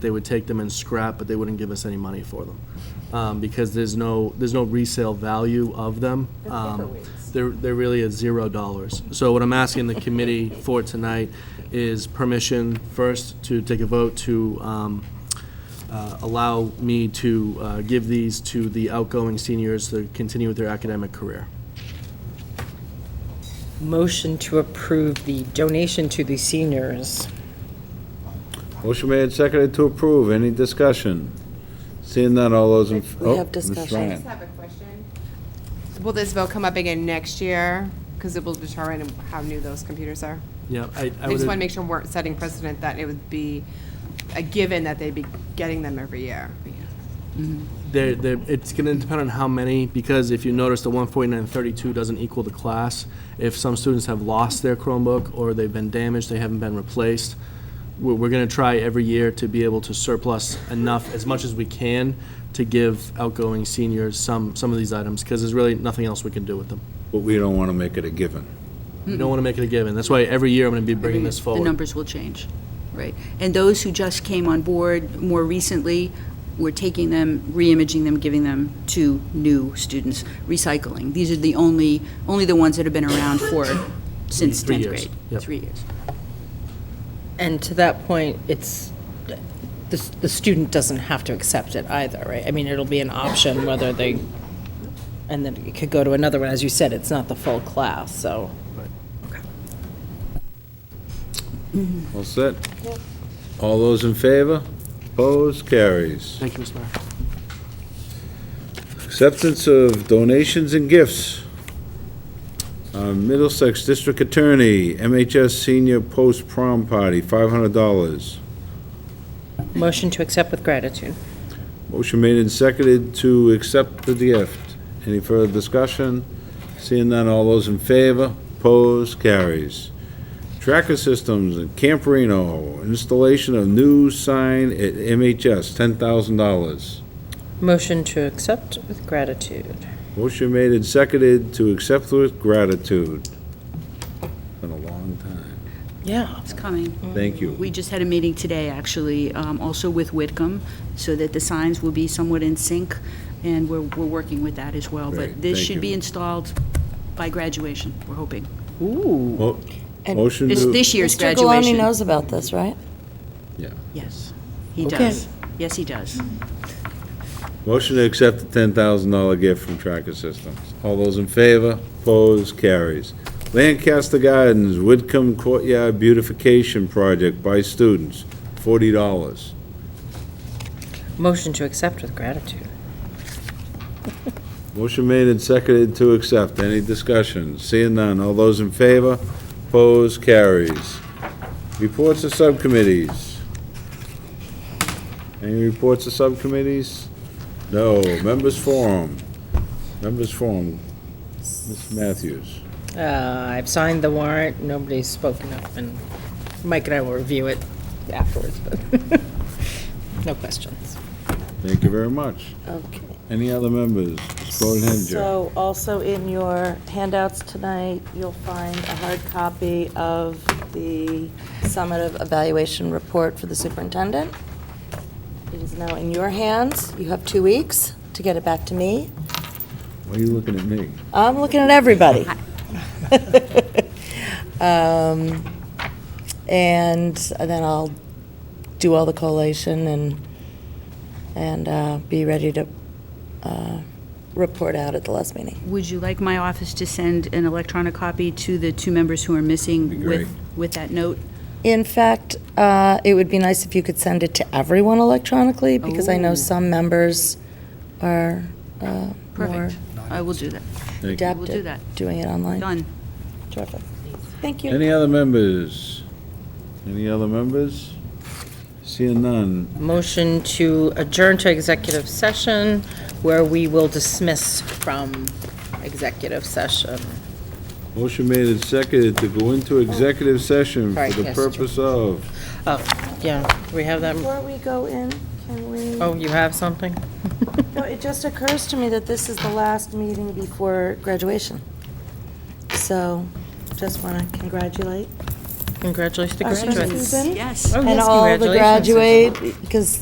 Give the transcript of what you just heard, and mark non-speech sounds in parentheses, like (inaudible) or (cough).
they would take them and scrap, but they wouldn't give us any money for them. Um, because there's no, there's no resale value of them. They're Um, paperweights. There, there really is zero dollars. So what I'm asking the committee for tonight is permission first to take a vote to, um, uh, allow me to, uh, give these to the outgoing seniors to continue with their academic career. Motion to approve the donation to the seniors. Motion made and seconded to approve. Any discussion? Seeing none, all those in... We oh, have Ms. discussion. Ryan. I just have a question. Will this vote come up again next year? Because it will determine how new those computers are. Yeah, I, I I just want to would, make sure we're setting precedent that it would be a given that they'd be getting them every year. there, there, it's gonna depend on how many, because if you notice, the one forty-nine thirty-two doesn't equal the class. If some students have lost their Chromebook, or they've been damaged, they haven't been replaced, we're, we're gonna try every year to be able to surplus enough, as much as we can, to give outgoing seniors some, some of these items, because there's really nothing else we can do with them. But we don't want to make it a given. We don't wanna make it a given, that's why every year I'm gonna be bringing this The forward. numbers will change, right. And those who just came on board more recently, we're taking them, re-imaging them, giving them to new students, recycling. These are the only, only the ones that have been around for, since Three 10th years, grade. yep. Three years. And to that point, it's, the, the student doesn't have to accept it either, right? I mean, it'll be an option whether they, and then it could go to another one. As you said, it's not the full class, so. All set? All those in favor? Opposed? Carries. Thank you, Ms. Mayor. Acceptance of donations and gifts. Uh, Middlesex District Attorney, MHS Senior Post Prom Party, $500. Motion to accept with gratitude. Motion made and seconded to accept the gift. Any further discussion? Seeing none, all those in favor? Opposed? Carries. Tracker Systems in Camperino, installation of new sign at MHS, $10,000. Motion to accept with gratitude. Motion made and seconded to accept with gratitude. Been a long time. Yeah. It's coming. Mm-hmm. Thank you. We just had a meeting today, actually, um, also with Whitcomb, so that the signs will be somewhat in sync, and we're, we're working with that as well. Great, But this thank you. should be installed by graduation, we're hoping. Ooh. Mo- Motion This, to, this year's Mr. graduation. Galani knows about this, right? Yes, he Okay. does. Yes, he does. motion to accept the $10,000 gift from Tracker Systems. All those in favor? Opposed? Carries. Lancaster Gardens, Whitcomb Courtyard Beautification Project by students, $40. Motion to accept with gratitude. Motion made and seconded to accept. Any discussion? Seeing none. All those in favor? Opposed? Carries. Reports of subcommittees. Any reports of subcommittees? No. Members forum. Members forum. Ms. Matthews. Uh, I've signed the warrant, nobody's spoken up, and Mike and I will review it afterwards, but (laughs) no questions. Thank you very much. Okay. Any other members? Ms. Bodenhinger. So also in your handouts tonight, you'll find a hard copy of the summative evaluation report for the superintendent. It is now in your hands. You have two weeks to get it back to me. Why are you looking at me? I'm looking at everybody. (laughs) Um, And then I'll do all the collation and, and uh, be ready to uh, report out at the last meeting. Would you like my office to send an electronic copy to the two members who are Be missing great. with, with that note? In fact, uh, it would be nice if you could send it to everyone electronically, because I know Oh. some members are uh, more Perfect. I will do that. Thank you. adept do that. at doing it online. Done. Terrific. Thank you. Any other members? Any other members? Seeing none. Motion to adjourn to executive session, where we will dismiss from executive session. Motion made and seconded to go into executive session for Right, the yes. purpose of, Oh, yeah, do we have that, Before we go in, can we, oh, you have something? no, it just occurs to me that this is the last meeting before graduation. So just want to congratulate Congratulations to Congratulations. graduates. Susan. Yes. Oh, And yes, all the Oh, congratulations, Susan. graduate, because